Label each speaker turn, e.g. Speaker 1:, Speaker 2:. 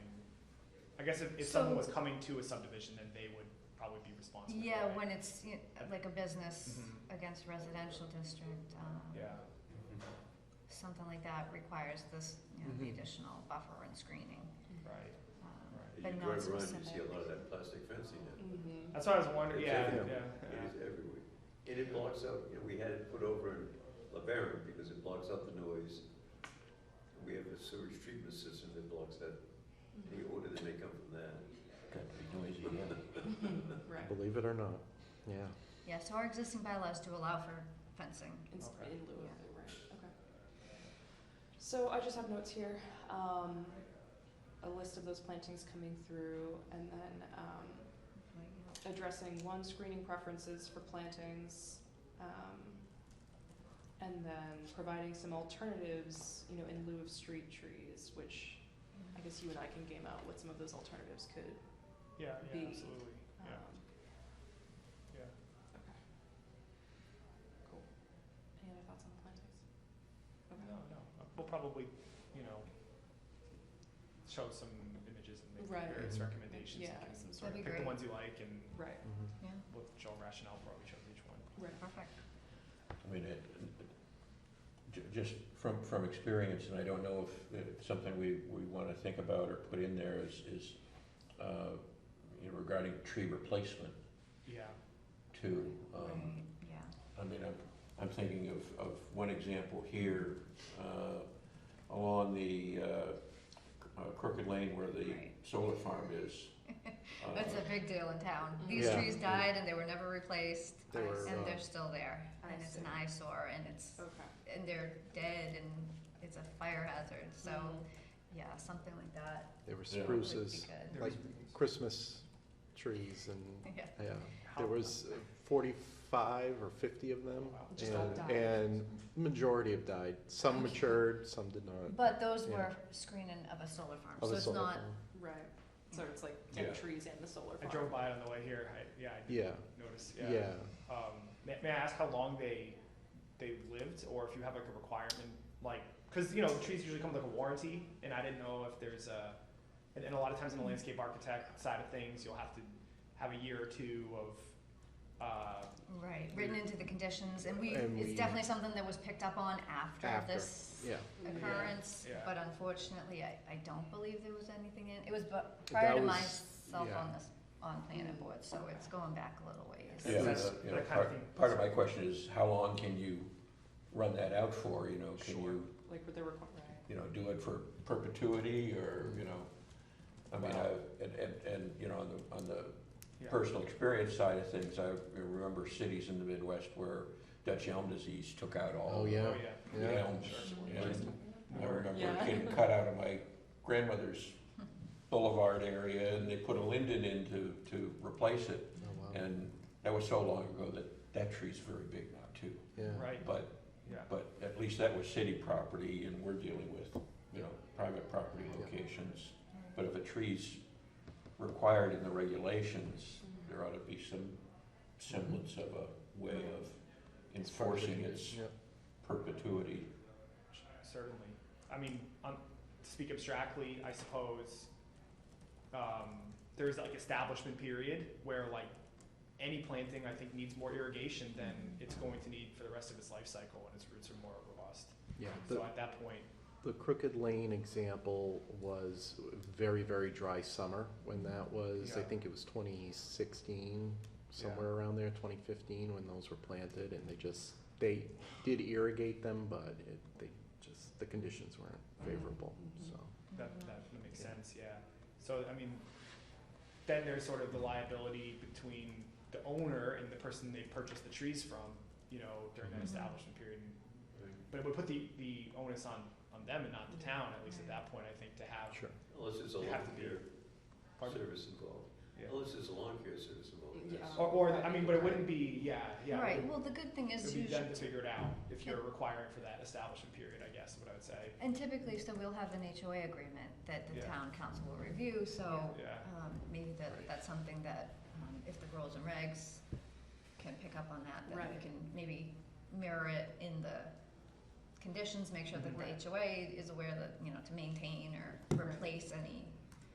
Speaker 1: I guess if, if
Speaker 2: So-
Speaker 1: someone was coming to a subdivision, then they would probably be responsible.
Speaker 2: Yeah,
Speaker 1: right?
Speaker 2: when it's you know, like a business
Speaker 1: Mhm.
Speaker 2: against residential district, um,
Speaker 1: Yeah,
Speaker 3: Mm-hmm.
Speaker 2: something like that requires this, you know, the
Speaker 4: Mhm.
Speaker 2: additional buffer and screening,
Speaker 1: right,
Speaker 2: um,
Speaker 1: right.
Speaker 2: but
Speaker 3: You
Speaker 2: not
Speaker 3: drive around, you
Speaker 2: specific.
Speaker 3: see a lot of that plastic fencing now.
Speaker 5: Mm-hmm.
Speaker 1: That's what I was wondering,
Speaker 3: It's
Speaker 1: yeah, yeah,
Speaker 3: everywhere. It
Speaker 1: yeah.
Speaker 3: is everywhere. And it blocks out, you know, we had it put over in LeBaron because it blocks out the noise. We have a sewage treatment system that blocks that, any odor that may come from that.
Speaker 4: Got to be noisy, yeah.
Speaker 5: Right.
Speaker 4: Believe it or not, yeah.
Speaker 2: Yeah, so our existing bylaws do allow for fencing.
Speaker 5: In, s-
Speaker 1: Okay.
Speaker 5: in lieu of it, right? Okay. So I just have notes here. Um, a list of those plantings coming through, and then um,
Speaker 2: but, you know,
Speaker 5: addressing one screening preferences for plantings, um, and then providing some alternatives, you know, in lieu of street trees, which I guess you and I can game out what some of those alternatives could.
Speaker 1: Yeah, yeah,
Speaker 5: Be,
Speaker 1: absolutely,
Speaker 5: Um,
Speaker 1: yeah, yeah.
Speaker 5: Okay. Cool. Any other thoughts on plantings? Okay.
Speaker 1: No, no, Uh, we'll probably, you know, show some images and
Speaker 5: Right.
Speaker 1: make various
Speaker 4: Mhm.
Speaker 1: recommendations.
Speaker 5: Yeah,
Speaker 1: You can
Speaker 5: some
Speaker 1: sort
Speaker 5: sort
Speaker 1: of
Speaker 2: That'd be
Speaker 1: Pick the
Speaker 2: great.
Speaker 1: ones you like and
Speaker 5: Right.
Speaker 4: Mhm.
Speaker 2: Yeah,
Speaker 1: we'll show rationale for what we chose each one.
Speaker 5: Right.
Speaker 2: perfect.
Speaker 6: I mean, it, it- ju- just from, from experience, and I don't know if, if something we, we wanna think about or put in there is, is, uh, you know, regarding tree replacement
Speaker 1: Yeah,
Speaker 6: too. Um,
Speaker 2: Right, yeah.
Speaker 6: I mean, I'm, I'm thinking of, of one example here, uh, along the, uh, uh, Crooked Lane where the
Speaker 2: Right.
Speaker 6: solar farm is. Uh,
Speaker 2: That's a big deal in town.
Speaker 5: Mm-hmm.
Speaker 2: These
Speaker 4: Yeah.
Speaker 2: trees died and they were never replaced,
Speaker 4: They were,
Speaker 2: and
Speaker 4: uh,
Speaker 2: they're still there,
Speaker 5: I
Speaker 2: and it's an
Speaker 5: see.
Speaker 2: eyesore, and it's,
Speaker 5: Okay.
Speaker 2: and they're dead, and it's a fire hazard, so,
Speaker 5: Mm-hmm.
Speaker 2: yeah, something like that
Speaker 4: They were
Speaker 6: Yeah.
Speaker 2: would be
Speaker 4: spruces,
Speaker 2: good.
Speaker 1: there
Speaker 4: Like-
Speaker 1: was,
Speaker 4: Christmas trees and,
Speaker 2: Yeah,
Speaker 4: yeah.
Speaker 1: how,
Speaker 4: There was uh, forty-five or fifty of them.
Speaker 1: Wow.
Speaker 5: Just all died.
Speaker 4: And, and majority have died. Some matured, some did not.
Speaker 2: but those
Speaker 4: Yeah.
Speaker 2: were screening of a solar farm,
Speaker 4: Of
Speaker 2: so
Speaker 4: a
Speaker 2: it's
Speaker 4: solar
Speaker 2: not,
Speaker 4: farm.
Speaker 5: Right. So it's like
Speaker 6: Yeah.
Speaker 5: dead trees and the solar
Speaker 1: I
Speaker 5: farm.
Speaker 1: drove by on the way here, I, yeah, I
Speaker 4: Yeah,
Speaker 1: did notice, yeah.
Speaker 4: yeah.
Speaker 1: Um, may, may I ask how long they, they lived, or if you have like a requirement, like, cause you know, trees usually come with like a warranty, and I didn't know if there's a, and, and a lot of times in the landscape architect side of things, you'll have to have a year or two of, uh,
Speaker 2: right, written into the conditions, and we,
Speaker 4: And
Speaker 2: it's
Speaker 4: we-
Speaker 2: definitely something that was picked up on after
Speaker 4: After,
Speaker 2: this
Speaker 4: Yeah,
Speaker 2: occurrence,
Speaker 1: Yeah.
Speaker 2: but unfortunately, I, I don't believe there was anything in, it was bu-
Speaker 4: That
Speaker 2: prior to
Speaker 4: was-
Speaker 2: myself
Speaker 4: yeah.
Speaker 2: on this, on planning board, so it's going back a little ways.
Speaker 6: Yeah,
Speaker 1: So
Speaker 6: the-
Speaker 1: that's
Speaker 6: you know,
Speaker 1: that kind of thing.
Speaker 6: part, part of my question is, how long can you run that out for, you know, can
Speaker 1: Sure.
Speaker 6: you,
Speaker 5: Like with the requ- right.
Speaker 6: you know, do it for perpetuity, or, you know? I mean, I, and, and, and, you know, on the, on the
Speaker 1: yeah.
Speaker 6: personal experience side of things, I remember cities in the Midwest where Dutch elm disease took out all
Speaker 4: Oh,
Speaker 6: the
Speaker 4: yeah.
Speaker 1: Oh,
Speaker 6: the
Speaker 4: Yeah.
Speaker 6: elms.
Speaker 1: Sure.
Speaker 6: And I
Speaker 5: Yeah.
Speaker 6: remember getting cut out of my grandmother's boulevard area, and they put a linden in to, to replace it.
Speaker 4: oh wow,
Speaker 6: And that was so long ago that that tree's very big now too.
Speaker 4: yeah.
Speaker 1: Right,
Speaker 6: But,
Speaker 1: yeah,
Speaker 6: but at least that was city property, and we're dealing with, you know, private property
Speaker 4: Yeah.
Speaker 6: locations. But if a tree's required in the regulations, there ought to be some semblance of a way of enforcing its
Speaker 4: Yeah.
Speaker 6: perpetuity.
Speaker 1: certainly. I mean, um, to speak abstractly, I suppose, um, there's like establishment period where like any planting, I think, needs more irrigation than it's going to need for the rest of its life cycle and its roots are more robust.
Speaker 4: Yeah,
Speaker 1: So
Speaker 4: the,
Speaker 1: at that point,
Speaker 4: the Crooked Lane example was very, very dry summer when that was, I
Speaker 1: Yeah.
Speaker 4: think it was twenty sixteen, somewhere around there, twenty fifteen, when those were planted, and they just, they did irrigate them, but it, they just, the conditions weren't favorable,
Speaker 5: Mhm.
Speaker 4: so.
Speaker 1: that,
Speaker 2: Mm-hmm.
Speaker 1: that makes sense, yeah. So, I mean, then there's sort of the liability between the owner and the person they purchased the trees from, you know, during that
Speaker 2: Mhm.
Speaker 1: establishment period. But it would put the, the onus on, on them and not the town, at least at that point, I think, to have.
Speaker 4: Sure.
Speaker 3: Unless there's a
Speaker 1: They have
Speaker 3: lawn
Speaker 1: to be-
Speaker 3: care
Speaker 1: Pardon?
Speaker 3: service involved.
Speaker 1: Yeah.
Speaker 3: Unless there's a lawn care service involved.
Speaker 5: Yeah.
Speaker 3: That's-
Speaker 1: Or, or, I mean, but it wouldn't be, yeah, yeah. it
Speaker 2: Right,
Speaker 1: would-
Speaker 2: well, the good thing
Speaker 1: It
Speaker 2: is
Speaker 1: would be
Speaker 2: usually,
Speaker 1: them to figure it out if you're requiring for that establishment period, I guess, is what I would say.
Speaker 2: and typically, so we'll have an HOA agreement that the
Speaker 1: Yeah.
Speaker 2: town council will review, so,
Speaker 1: Yeah,
Speaker 2: um, maybe that,
Speaker 4: Right.
Speaker 2: that's something that, um, if the rules and regs can pick up on that, then we
Speaker 5: Right.
Speaker 2: can maybe mirror it in the conditions, make sure that
Speaker 1: Mhm.
Speaker 2: the HOA is aware that, you know, to maintain or replace any